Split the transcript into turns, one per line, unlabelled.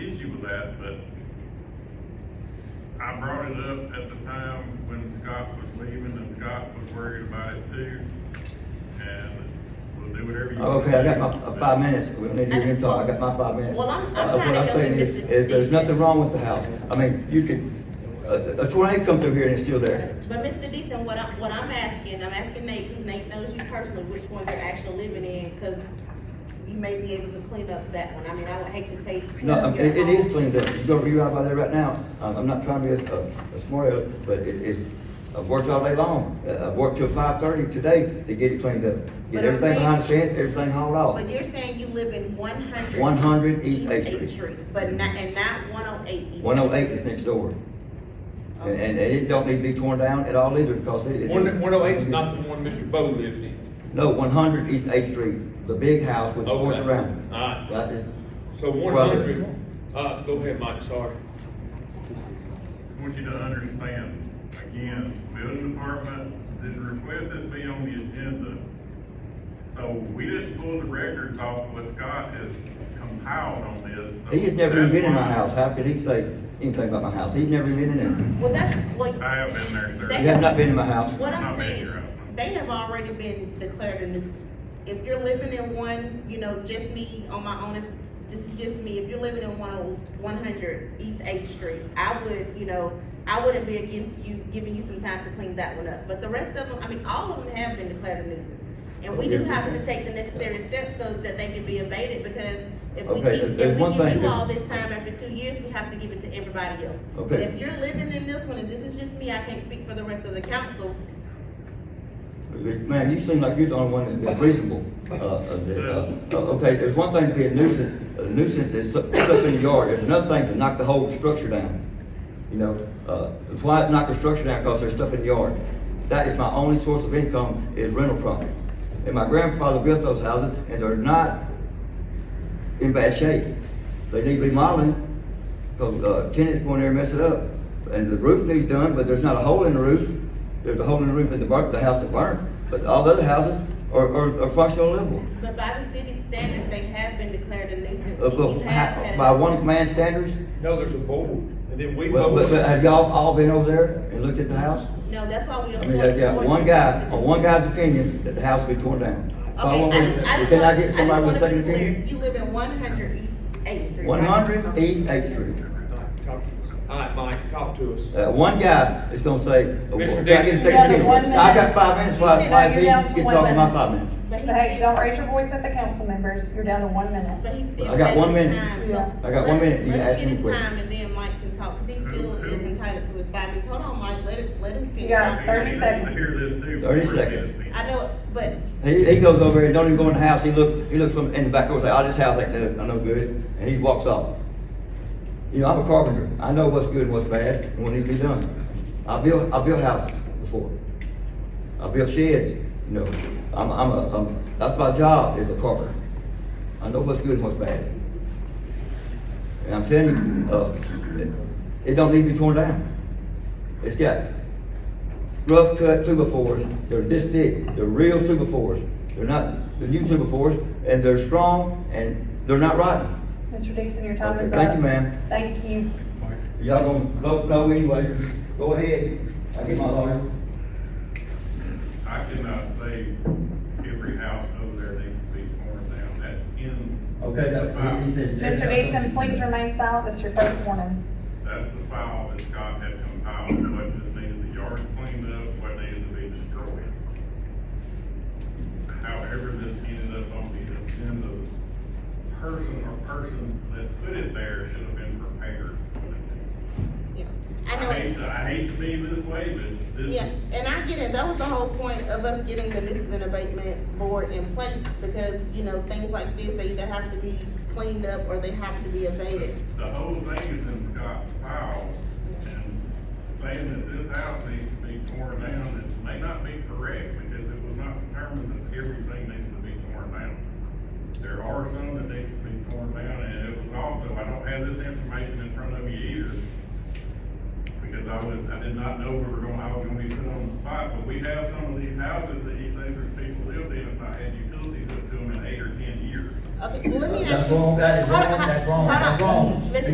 that, but I brought it up at the time when Scott was leaving, and Scott was worried about it too. And we'll do whatever you. want
Oh, Okay, I got
to do,
my uh,
but-
five minutes, we need to hear him talk, I got my five minutes.
Well, I'm- I'm
Uh,
trying to
What I'm
help
saying
you,
is,
Mr.
is there's
Dixon.
nothing wrong with the house, I mean, you could, a, a tornado come through here and it's still there.
But Mr. Deason, what I'm, what I'm asking, I'm asking Nate, because Nate knows you personally, which one you're actually living in, because you may be able to clean up that one. I mean, I would hate to take.
No, um,
your
it, it is
home.
cleaned up, you go, you out by there right now, um, I'm not trying to be a, a- a smart aleck, but it, it's, I've worked all day long, Uh, I've worked till five thirty today to get it cleaned up.
But
Get
I'm
everything behind the
saying-
fence, everything hauled off.
But you're saying you live in one hundred.
100 East Eighth Street.
But not, and not one oh eight. East.
One oh eight is next door. And, and it don't need to be torn down at all either, because it is.
One, one oh eight is not the one Mr. Bo lived in.
No, one hundred East Eighth Street, the big house with the doors
Okay.
around it.
Alright.
That is-
So one
Well,
hundred, uh, go ahead, Mike, sorry.
I want you to understand, again, building department didn't request this be on the agenda. So we just pulled the records off what Scott has compiled on this. so
He has never even been in my
that's why-
house, how could he say anything about my house? He's never even been in
Well, that's, well,
I have been there, sir.
it. You have not been in my house.
what I'm
Not me,
saying,
you're out.
they have already been declared a nuisance. If you're living in one, you know, just me on my own, if- this is just me, if you're living in one oh, one hundred East Eighth Street, I would, you know, I wouldn't be against you, giving you some time to clean that one up, but the rest of them, I mean, all of them have been declared a nuisance. And we do have to take the necessary steps so that they can be abated, because if we
Okay,
keep,
there's
if
one
we give
thing
you
that-
all this time after two years, we have to give it to everybody else.
Okay.
But if you're living in this one, and this is just me, I can't speak for the rest of the council,
Man, you seem like you're the only one that's reasonable. Uh, uh, uh, uh, Okay, there's one thing to be a nuisance, a nuisance is so- stuff in the yard, there's another thing to knock the whole structure down. You know, uh, why knock the structure down, because there's stuff in the yard. That is my only source of income, is rental property. And my grandfather built those houses, and they're not in bad shape. They need remodeling, because uh, tenants go in there and mess it up. And the roof needs done, but there's not a hole in the roof. There's a hole in the roof in the burnt, the house that burned, but all the other houses are, are, are functional livable.
But by the city standards, they have been declared a nuisance.
Uh,
and you
But
have
how-
had
by
enough.
one man standards,
No, there's a board, and then we
well, but, but
voted.
have y'all all been over there and looked at the house?
No, that's why we.
I mean, I got one guy, on one guy's opinion, that the house will be torn down. Follow
Okay, I
me?
just, I just.
Can I
wanna-
get somebody with a
just wanna
second
be clear.
opinion?
You live in one hundred East Eighth Street. right?
One hundred East Eighth Street.
Alright, Mike, talk to us.
Uh, one guy is gonna say, oh,
Mr.
can I get a
Dixon.
second
You got
opinion?
one
I got
minute.
five minutes,
You
why,
said
why is
you're
he
down to
gets
one
off of my
minute.
five minutes?
But he's.
Hey, don't raise your voice at the council members, you're down to one minute.
But he's still.
I got
has
one
his
minute.
time,
Yeah.
so
I got one
let-
minute. You
let him
ask
get
me
his
quick.
Time and then Mike can talk, cause he still is entitled to his five minutes. Hold on, Mike, let it, let him finish.
Yeah.
Everybody needs
30
To
seconds.
hear this too. before
30
it
seconds.
gets me.
I know, it, but
He, he goes over and don't even go in the house, he looks, he looks from in the back door, and say, oh, this house ain't no, no good, and he walks off. You know, I'm a carpenter, I know what's good and what's bad, and what needs to be done. I built, I built houses before, I built sheds, you know, I'm, I'm a, I'm, that's my job, is a carpenter. I know what's good and what's bad. And I'm telling you, uh, it- it don't need to be torn down. It's got rough cut two by fours, they're this thick, they're real two by fours. They're not the new two by fours, and they're strong, and they're not rotten.
Mr. Dixon, your time
Okay,
is up.
thank you, ma'am.
Thank you.
Y'all gonna vote no anyway, go ahead, I get my lawyer.
I cannot say every house over there needs to be torn down, that's in.
Okay, that, he- he said.
Mr. Dixon, please remain silent, this is your first warning.
That's the file that Scott had compiled, what just needed the yard cleaned up, what needed to be destroyed. However, this ended up on the agenda, the person or persons that put it there should have been prepared.
yeah, I know.
I hate, to- I hate to be this way, but this,
Yeah, and I get it, that was the whole point of us getting the nuisance and abatement board in place, because, you know, things like this, they either have to be cleaned up or they have to be abated.
the whole thing is in Scott's file, and saying that this house needs to be torn down, it may not be correct, because it was not determined that everything needs to be torn down. There are some that need to be torn down, and it was also, I don't have this information in front of me either, because I was, I did not know we were gonna, I was gonna be put on the spot, but we have some of these houses that he says there's people lived in, it's not had utilities up to them in eight or ten years.
Okay, well, let me ask you.
Uh, That's wrong, that is
Hold on,
wrong, that's
hold
wrong,
on.
that's wrong.
Mr.